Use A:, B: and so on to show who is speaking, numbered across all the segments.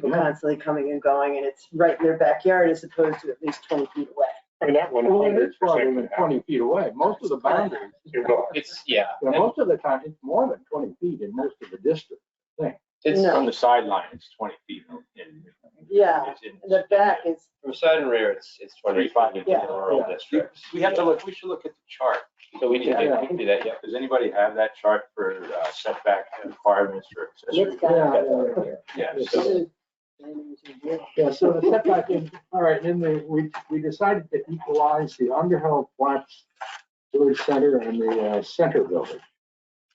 A: people constantly coming and going, and it's right in their backyard as opposed to at least twenty feet away.
B: And that one
C: Well, it
B: hundred
C: is farther than
B: percent.
C: twenty feet away. Most of the boundaries,
B: You're going.
D: It's, yeah,
C: yeah, most of the time, it's more than twenty feet in most of the district.
D: it's
A: No.
E: From the sideline, it's twenty feet. in-
A: Yeah,
E: it's in-
A: The back is,
D: from side and rear, it's, it's twenty-five in
A: Yeah.
D: rural
C: Yeah.
D: districts.
E: We have to look, we should look at the chart.
D: So we can, do-
C: Yeah.
D: we can do that, yeah.
E: Does anybody have that chart for uh, setback requirements for accessory?
A: It's got- Yeah.
E: Yeah, so
A: yeah,
C: Yeah, so the setback in, all right, then the- we, we decided to equalize the Underhill Flats Village Center and the uh, center building.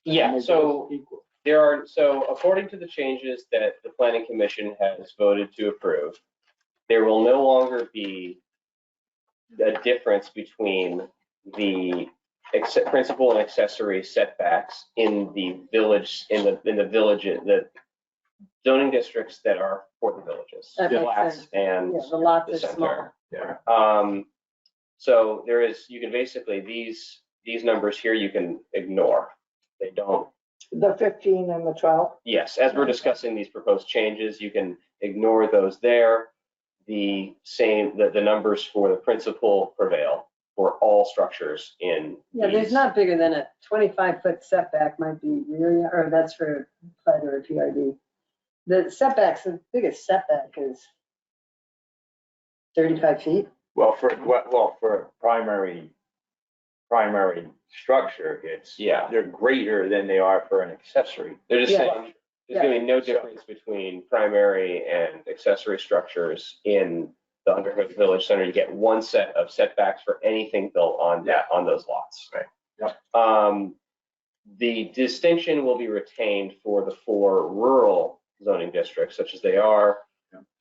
D: Yeah,
C: Make
D: so
C: it equal.
D: there are, so according to the changes that the planning commission has voted to approve, there will no longer be a difference between the acce- principal and accessory setbacks in the village, in the, in the village, the zoning districts that are for the villages.
A: That makes
D: flats
A: sense.
D: And
A: the lots
D: the
A: are small.
D: center. Um, so there is, you can basically, these, these numbers here, you can ignore. They don't,
F: The fifteen and the twelve?
D: yes, as we're discussing these proposed changes, you can ignore those there. The same, the, the numbers for the principal prevail for all structures in.
A: Yeah, there's
D: these.
A: not bigger than a twenty-five foot setback might be rear, or that's for PUD or PRD. The setbacks, the biggest setback is thirty-five feet.
E: Well, for, well, for primary, primary structure, it's,
D: Yeah.
E: they're greater than they are for an accessory.
D: They're just
A: Yeah.
D: saying, there's gonna be no difference between primary and accessory structers in the Underhill Village Center. You get one set of setbacks for anything built on that, on those lots.
E: Right.
D: Um, the distinction will be retained for the four rural zoning districts, such as they are.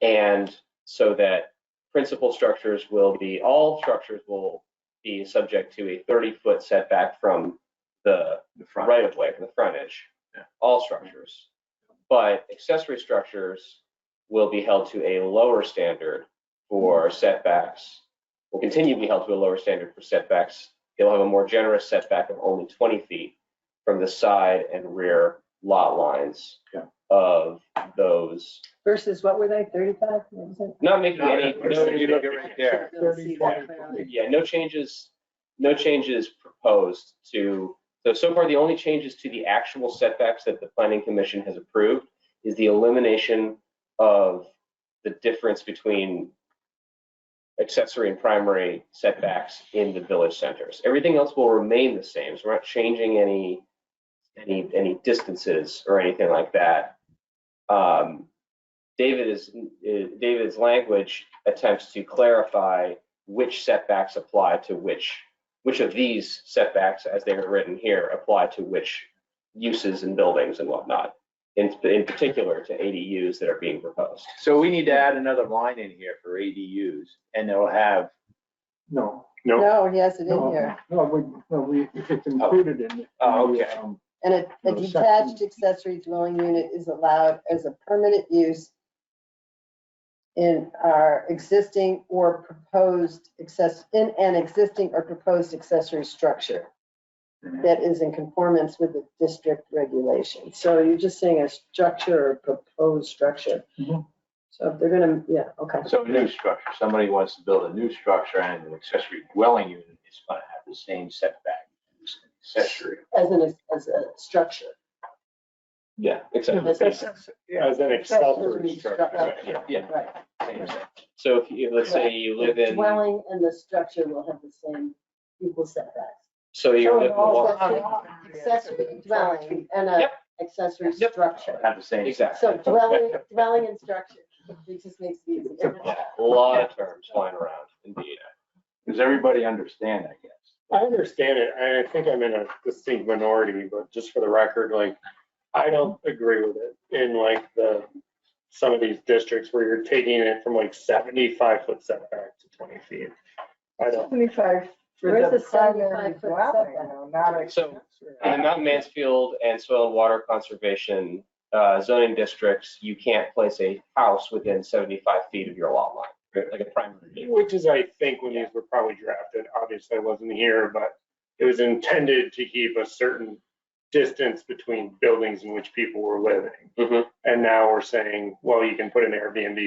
D: And so that principal structures will be, all structures will be subject to a thirty-foot setback from the
E: The front.
D: right of way, from the frontage.
E: Yeah.
D: All structures. But accessory structures will be held to a lower standard for setbacks. Will continue to be held to a lower standard for setbacks. They'll have a more generous setback of only twenty feet from the side and rear lot lines
C: Yeah.
D: of those,
A: Versus what were they, thirty-five? What was it?
D: not making any,
E: No, you look at right there.
A: You'll see that
C: 30,
A: clearly.
C: 20.
D: yeah, no changes, no changes proposed to, so, so far, the only changes to the actual setbacks that the planning commission has approved is the elimination of the difference between accessory and primary setbacks in the village centers. Everything else will remain the same, so we're not changing any, any, any distances or anything like that. Um, David is, uh, David's language attempts to clarify which setbacks apply to which, which of these setbacks, as they are written here, apply to which uses and buildings and whatnot, in, in particular to ADUs that are being proposed.
E: So we need to add another line in here for ADUs and it'll have,
C: No.
B: No,
A: No, he has it in
C: no,
A: here.
C: No, we, no, we, it's included in. the-
E: Oh, okay.
C: um,
A: And a- a
C: No, section-
A: detached accessory dwelling unit is allowed as a permanent use in our existing or proposed access, in an existing or proposed accessory structure
C: Mhm.
A: that is in conformance with the district regulation. So you're just saying a structure or proposed structure.
C: Mhm.
A: So if they're gonna, yeah, okay.
E: so a new structure, somebody wants to build a new structure and an accessory dwelling unit is gonna have the same setback. as an Accessory.
A: As an, as a structure.
D: Yeah,
A: As
D: exactly.
A: a-
B: As an accessory
A: Accessory
B: structure.
A: structure.
B: right, yeah.
E: Yeah.
A: Right.
E: same setback.
D: So if you, let's say you live
A: The
D: in,
A: Dwelling and the structure will have the same equal setbacks.
D: so you're living in Wa-
A: Accessory dwelling and a
D: Yep.
A: accessory
D: Yep.
A: structure.
E: Have the same.
D: Exactly.
A: So dwelling, dwelling and structure, it just makes it easy.
D: yeah, a lot of terms flying around, indeed.
E: Does everybody understand, I guess?
B: I understand it, and I think I'm in a distinct minority, but just for the record, like, I don't agree with it in like the, some of these districts where you're taking it from like seventy-five foot setback to twenty feet. I don't,
F: Seventy-five.
A: for Where's the the primary 75 foot dwelling, setback?
F: Not
D: So- In the Uh, Mount Mansfield and Soil and Water Conservation uh, zoning districts, you can't place a house within 75 feet of your lot line, like a primary. neighbor.
B: which is, I think, when these were probably drafted, obviously I wasn't here, but it was intended to keep a certain distance between buildings in which people were living.
D: Mhm.
B: And now we're saying, well, you can put an Airbnb